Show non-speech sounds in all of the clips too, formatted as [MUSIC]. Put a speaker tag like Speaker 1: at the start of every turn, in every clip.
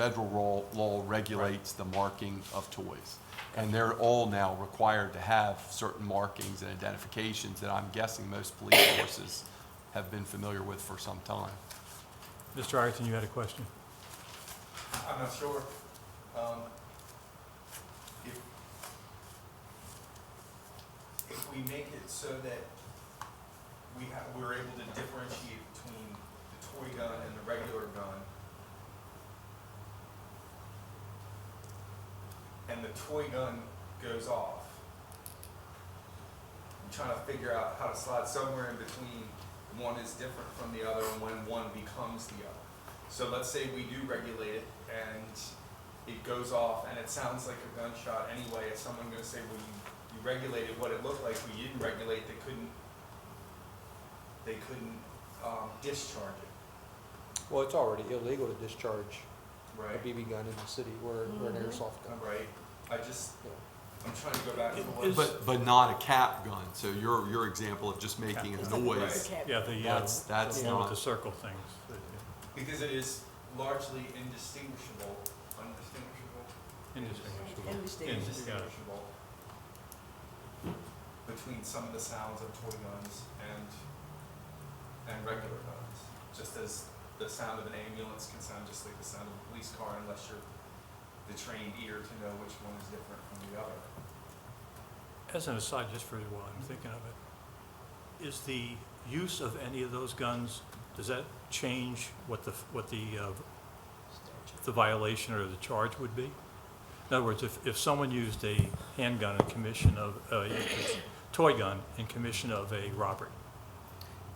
Speaker 1: federal ro- law regulates the marking of toys. And they're all now required to have certain markings and identifications that I'm guessing most police forces have been familiar with for some time.
Speaker 2: Mr. Ireton, you had a question?
Speaker 3: I'm not sure. Um, If, if we make it so that we have, we're able to differentiate between the toy gun and the regular gun, and the toy gun goes off, I'm trying to figure out how to slide somewhere in between, one is different from the other, and when one becomes the other. So let's say we do regulate it and it goes off and it sounds like a gunshot anyway, is someone gonna say, well, you, you regulated what it looked like, but you didn't regulate, they couldn't, they couldn't, um, discharge it,
Speaker 4: Well, it's already illegal to discharge a
Speaker 3: right?
Speaker 4: BB gun in the city or, or
Speaker 5: Mm-hmm.
Speaker 4: an airsoft gun.
Speaker 3: Right, I just,
Speaker 4: Yeah.
Speaker 3: I'm trying to go back to
Speaker 2: Is-
Speaker 3: what,
Speaker 1: But, but not a cap gun. So your, your example of just making a noise,
Speaker 2: Yeah, the, uh,
Speaker 1: that's, that's
Speaker 2: the one with the
Speaker 1: not,
Speaker 2: circle things.
Speaker 3: because it is largely indistinguishable, undistinguishable,
Speaker 2: Indistinguishable.
Speaker 3: indistinguishable between some of the sounds of toy guns and, and regular guns. Just as the sound of an ambulance can sound just like the sound of a police car unless you're the trained ear to know which one is different from the other.
Speaker 2: As an aside, just for while I'm thinking of it, is the use of any of those guns, does that change what the, what the, uh, the violation or the charge would be? In other words, if, if someone used a handgun in commission of, uh, toy gun in commission of a robbery,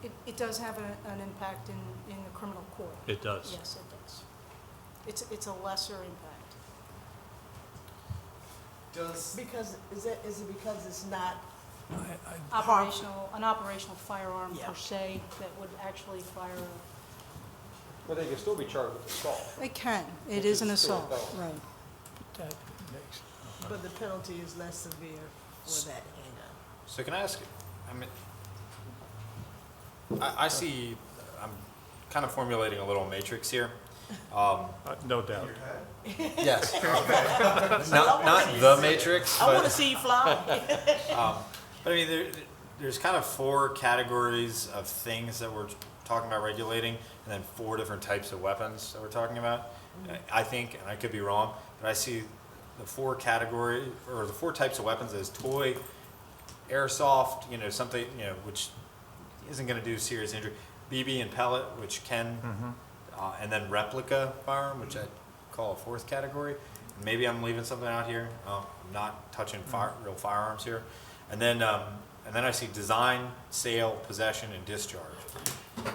Speaker 6: It, it does have a- an impact in, in the criminal court.
Speaker 2: it does.
Speaker 6: Yes, it does. It's, it's a lesser impact.
Speaker 3: Does,
Speaker 5: Because, is it, is it because it's not,
Speaker 2: I- I-
Speaker 6: Operational, an operational firearm
Speaker 5: Yeah.
Speaker 6: per se that would actually fire, a-
Speaker 4: But they can still be charged with assault.
Speaker 6: it can,
Speaker 4: Which
Speaker 6: it is an
Speaker 4: is still a
Speaker 6: assault,
Speaker 4: felony.
Speaker 6: right.
Speaker 2: that makes-
Speaker 5: but the penalty is less severe for that handgun?
Speaker 7: So can I ask, I mean, I, I see, I'm kind of formulating a little matrix here. Um,
Speaker 2: uh, No doubt.
Speaker 7: yes. [LAUGHS] Not, not the matrix,
Speaker 5: I wanna
Speaker 7: but,
Speaker 5: see you fly.
Speaker 7: um, but I mean, there, there's kind of four categories of things that we're talking about regulating, and then four different types of weapons that we're talking about. I I think, and I could be wrong, but I see the four category, or the four types of weapons as toy, airsoft, you know, something, you know, which isn't going to do serious injury. BB and pellet, which can, uh, and then replica firearm, which I call a fourth category. Maybe I'm leaving something out here. Um, I'm not touching fire, real firearms here. And then, um, and then I see design, sale, possession, and discharge.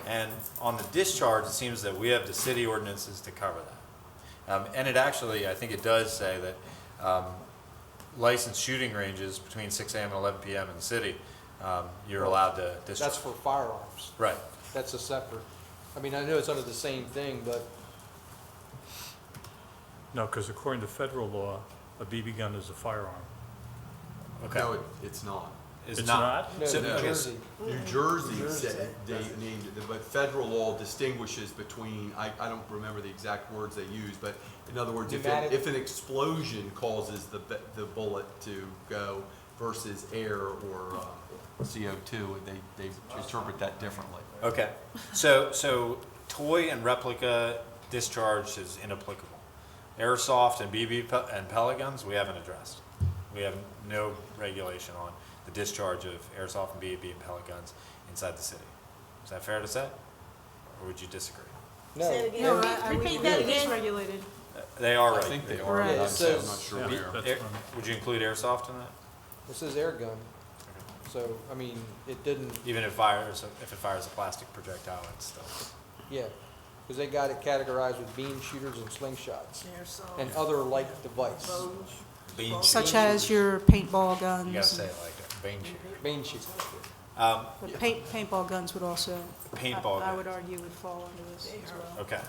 Speaker 7: And on the discharge, it seems that we have the city ordinances to cover that. Um, and it actually, I think it does say that um, licensed shooting ranges between 6 a.m. and 11 p.m. in the city, um, you're allowed to discharge.
Speaker 4: That's for firearms.
Speaker 7: right.
Speaker 4: That's a separate. I mean, I know it's under the same thing, but
Speaker 2: No, because according to federal law, a BB gun is a firearm.
Speaker 7: Okay.
Speaker 1: no, it- it's not.
Speaker 2: It's not?
Speaker 4: no,
Speaker 7: So-
Speaker 4: New
Speaker 1: okay.
Speaker 4: Jersey,
Speaker 1: New Jersey
Speaker 4: Jersey.
Speaker 1: said, they named it, but federal law distinguishes between, I, I don't remember the exact words they used, but in other words, if, it-
Speaker 4: Pneumatic.
Speaker 1: if an explosion causes the, bu- the bullet to go versus air or uh, CO2, they, they interpret that differently.
Speaker 7: Okay. So, so toy and replica discharge is inapplicable. Airsoft and BB pe- and pellet guns, we haven't addressed. We have no regulation on the discharge of airsoft and BB and pellet guns inside the city. Is that fair to say? Or would you disagree?
Speaker 5: Say
Speaker 4: [LAUGHS]
Speaker 5: it
Speaker 4: no.
Speaker 5: again. Repeat-
Speaker 6: No, I- I would-
Speaker 5: Repeat that
Speaker 6: It is
Speaker 5: again.
Speaker 6: regulated.
Speaker 7: Uh, They are
Speaker 1: I
Speaker 7: right.
Speaker 1: think they
Speaker 7: They-
Speaker 1: are, but I'm
Speaker 4: Right.
Speaker 1: so- I'm
Speaker 4: Says-
Speaker 1: not sure
Speaker 2: Yeah,
Speaker 1: where.
Speaker 2: that's
Speaker 7: air-
Speaker 2: what I'm-
Speaker 7: Would you include airsoft in that?
Speaker 4: This is air gun. So, I mean, it didn't,
Speaker 7: Even if fires, if it fires a plastic projectile, it's still.
Speaker 4: yeah, because they got it categorized with beam shooters and slingshots and uh,
Speaker 5: Airsoft,
Speaker 4: other like device.
Speaker 5: bows,
Speaker 7: Bean
Speaker 6: Such
Speaker 7: shoot.
Speaker 6: as your paintball guns.
Speaker 7: You gotta say it like that, bean shooter.
Speaker 4: Beam shooter.
Speaker 7: Um,
Speaker 6: But paint, paintball guns would also, I
Speaker 7: paintball
Speaker 6: I
Speaker 7: gun.
Speaker 6: would argue would fall under this as well.
Speaker 7: Okay.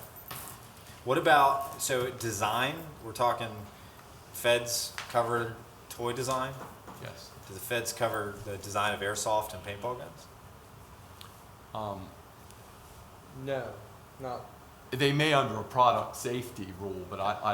Speaker 7: What about, so design, we're talking feds cover toy design?
Speaker 1: Yes.
Speaker 7: Do the feds cover the design of airsoft and paintball guns?
Speaker 1: Um,
Speaker 4: No, not,
Speaker 1: They may under a product safety rule, but I, I